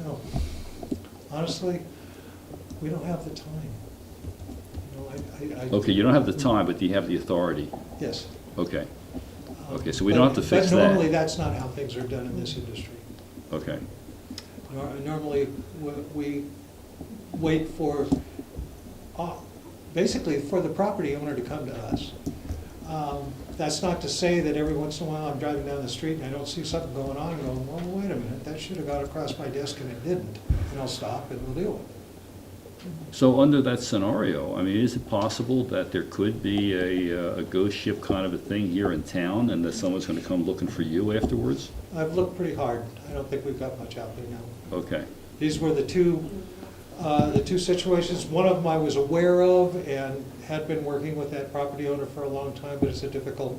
know. Honestly, we don't have the time. You know, I- I- I- Okay, you don't have the time, but do you have the authority? Yes. Okay, um, Okay, so we don't have to but- fix that. But normally, that's not how things are done in this industry. okay, Nor- Normally, w- we wait for, uh, basically for the property owner to come to us. Um, That's not to say that every once in a while I'm driving down the street and I don't see something going on, and going, well, wait a minute, that should have got across my desk and it didn't, and I'll stop and we'll deal with it. so under that scenario, I mean, is it possible that there could be a, uh, a ghost ship kind of a thing here in town, and that someone's gonna come looking for you afterwards? I've looked pretty hard, I don't think we've got much out there now. Okay, These were the two, uh, the two situations. One of them I was aware of and had been working with that property owner for a long time, but it's a difficult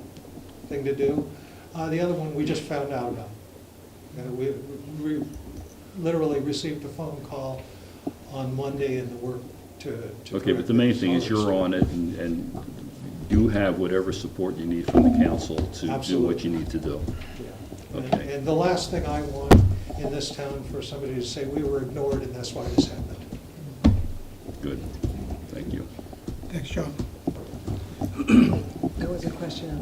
thing to do. Uh, The other one, we just found out about. Uh, We we literally received a phone call on Monday in the work to. to okay, but correct the main thing is solid you're state. on it, and, and you have whatever support you need from the council to do what you need to do. Yeah. And- Okay. And the last thing I want in this town for somebody to say, we were ignored and that's why this happened. Good, thank you. Thanks, John. There was a question.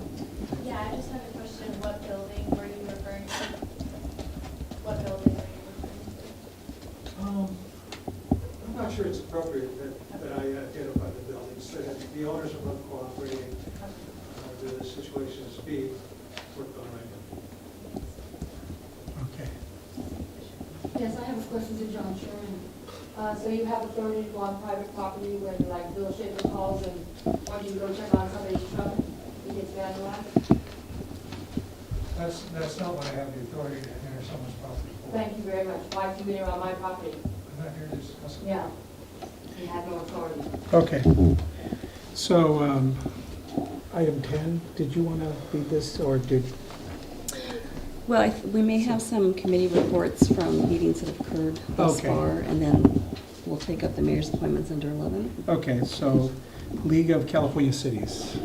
Yeah, I just had a question, what building were you referring to? What building were you Um, I'm not sure it's appropriate that, that I identify the buildings, that the owners are not cooperating, uh, the situation is being worked on right Okay. Yes, I have a question to John Sherman. Uh, so you have authority to go on private property when like Bill Shaver calls and why do you go check on somebody's truck? He gets vandalized? That's, that's not what I have the authority to enter someone's property for. Thank you very much. Why have you been around my property? I'm not here to discuss it. Yeah. You have no authority. Okay. So, um, item 10, did you want to read this, or did, Well, I th- we may have some committee reports from meetings that have occurred thus Okay. far, and then we'll take up the mayor's appointments under 11. okay, so League of California Cities.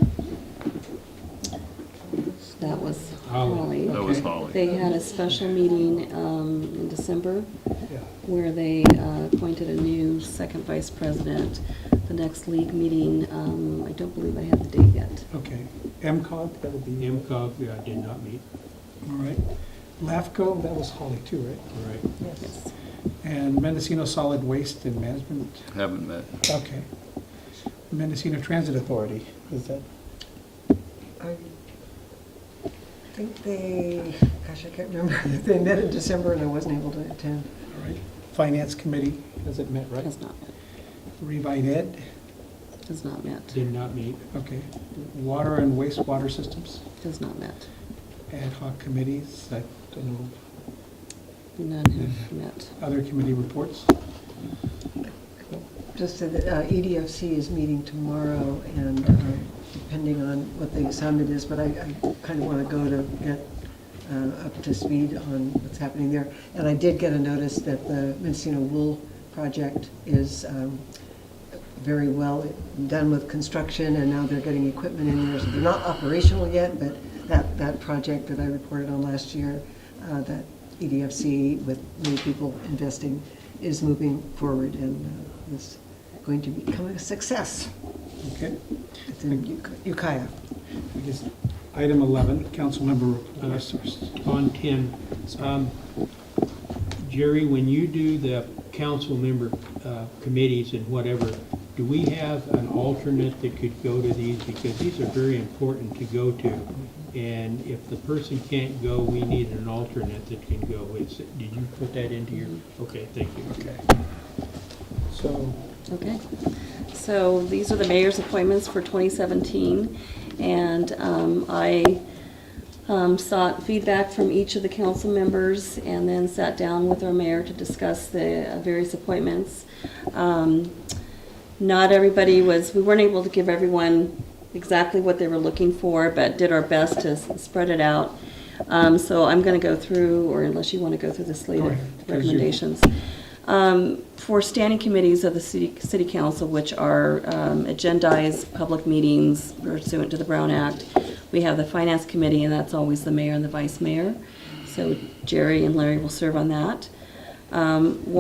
That was Holly. Holly. That was Okay. Holly. They had a special meeting um, in December Yeah. where they uh, appointed a new second vice president. The next league meeting, um, I don't believe I have the date yet. Okay. MCOG, that would be you. MCOG, yeah, did not meet, All right. LAFCO, that was Holly too, right? all right. Yes. And Mendocino Solid Waste and Management, Haven't met. okay. Mendocino Transit Authority, is that? I think they, gosh, I can't remember. They met in December and I wasn't able to attend. All right. Finance Committee, has it met, right? Has not, Revite Ed, has not met, did not meet, okay. Water and wastewater systems, has not met. ad hoc committees, I don't know, None have met. other committee reports. Just said that uh, EDFC is meeting tomorrow and uh, depending on what the assignment is, but I, I kind of want to go to get uh, up to speed on what's happening there. And I did get a notice that the Mendocino Wool Project is um, very well done with construction and now they're getting equipment in there. So They're not operational yet, but that, that project that I reported on last year, uh, that EDFC with new people investing is moving forward and uh, is going to become a success. Okay, It's in Ukiah. I guess, item 11, council member reports first. on ten. Um, Jerry, when you do the council member uh, committees and whatever, do we have an alternate that could go to these? Because these are very important to go to. And if the person can't go, we need an alternate that can go. Is, did you put that into your, okay, thank you. Okay. So, Okay. So these are the mayor's appointments for 2017, and um, I um, sought feedback from each of the council members and then sat down with our mayor to discuss the uh, various appointments. Um, Not everybody was, we weren't able to give everyone exactly what they were looking for, but did our best to s- spread it out. Um, So I'm going to go through, or unless you want to go through the slate Go of ahead, 'cause you- recommendations recommendations. Um, For standing committees of the city, city council, which are um, agendized public meetings pursuant to the Brown Act, we have the finance committee, and that's always the mayor and the vice mayor. So Jerry and Larry will serve on that. Um,